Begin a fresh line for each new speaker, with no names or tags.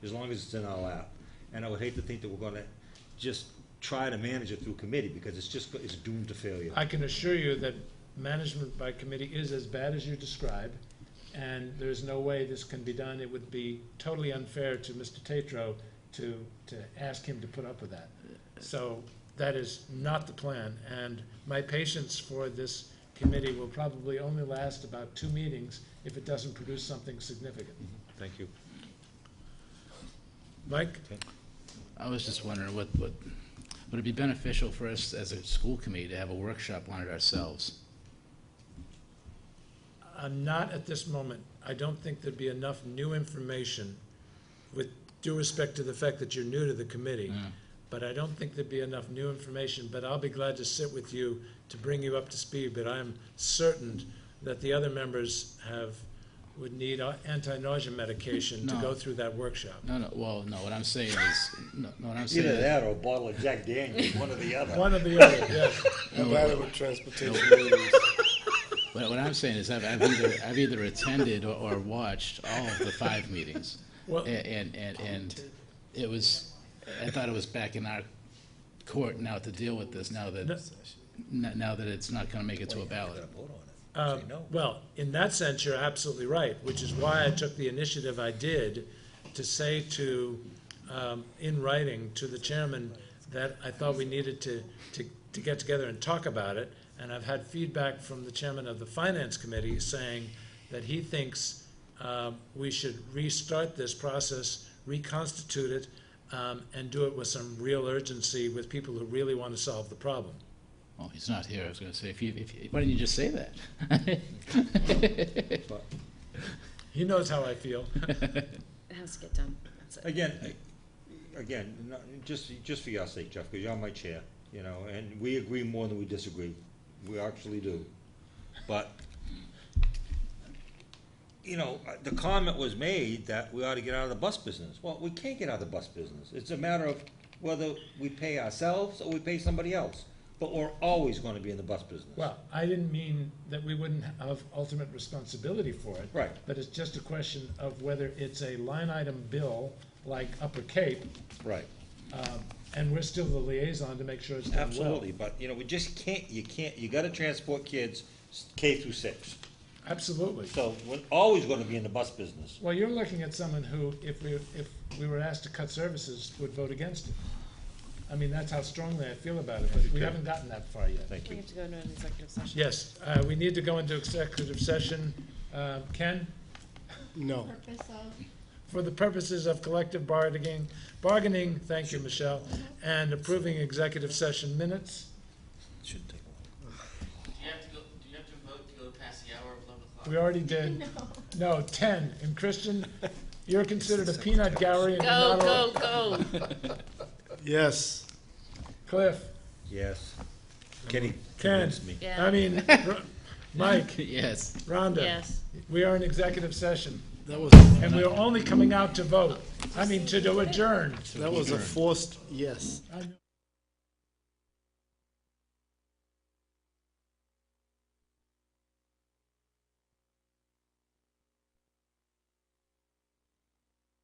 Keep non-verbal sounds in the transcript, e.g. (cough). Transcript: as long as it's in our lap. And I would hate to think that we're gonna just try to manage it through committee, because it's just, it's doomed to failure.
I can assure you that management by committee is as bad as you describe, and there's no way this can be done. It would be totally unfair to Mr. Tatro to, to ask him to put up with that. So that is not the plan, and my patience for this committee will probably only last about two meetings if it doesn't produce something significant.
Thank you.
Mike?
I was just wondering, what, what, would it be beneficial for us as a school committee to have a workshop on it ourselves?
I'm Uh, not at this moment. I don't think there'd be enough new information, with due respect to the fact that you're new to the committee,
Yeah.
but I don't think there'd be enough new information, but I'll be glad to sit with you to bring you up to speed, but I'm certain that the other members have, would need uh, anti-nausea medication to
No.
go through that workshop.
No, no, well, no, what I'm saying is, no, no, what I'm saying
Either
is,
that or a bottle of Jack Daniels, one or the other.
One or (laughs) the other, yes.
I'm glad it was transportation. meetings.
what, what I'm saying is I've, I've either, I've either attended or, or watched all of the five meetings.
Well-
A- And, and, and it was, I thought it was back in our court now to deal with this, now that,
No.
n- now that it's not gonna make it to a ballot.
Uh, Well, in that sense, you're absolutely right, which is why I took the initiative I did to say to, um, in writing to the chairman, that I thought we needed to, to, to get together and talk about it. And I've had feedback from the chairman of the finance committee saying that he thinks um, we should restart this process, reconstitute it, um, and do it with some real urgency with people who really want to solve the problem.
Well, he's not here, I was gonna say, if you, if, you- why didn't you just say that? (laughs)
He knows how I feel.
It has to get done. That's it.
Again, again, not- just, just for your sake, Jeff, because you're my chair, you know, and we agree more than we disagree. We actually do. But, you know, uh, the comment was made that we ought to get out of the bus business. Well, we can't get out of the bus business. It's a matter of whether we pay ourselves or we pay somebody else. But we're always gonna be in the bus business.
Well, I didn't mean that we wouldn't have ultimate responsibility for it.
Right.
But it's just a question of whether it's a line item bill like Upper Cape,
Right.
um, and we're still the liaison to make sure it's done well.
Absolutely, but, you know, we just can't, you can't, you gotta transport kids s- K through six.
Absolutely.
So we're always gonna be in the bus business.
Well, you're looking at someone who, if we, if we were asked to cut services, would vote against it. I mean, that's how strongly I feel about it, but we haven't gotten that far yet.
Thank
We
you.
have to go into an executive session.
Yes, uh, we need to go into executive session. Uh, Ken?
No.
purpose of (laughs)
for the purposes of collective bargaining, bargaining, thank you, Michelle, and approving executive session minutes.
Shouldn't take long.
Do you have to go, do you have to vote to go past the hour of eleven o'clock?
We already did, no, ten, and Christian, you're considered a peanut gallery and you're
Go,
not
go,
a,
go.
Yes.
Cliff,
Yes. Kenny
Ken.
convinced me.
Yeah.
I mean, R- Mike,
(laughs) Yes,
Rhonda,
Yes.
we are in executive session,
That was
and we're only coming out to vote, I mean, to adjourn.
that was a forced yes.
I know.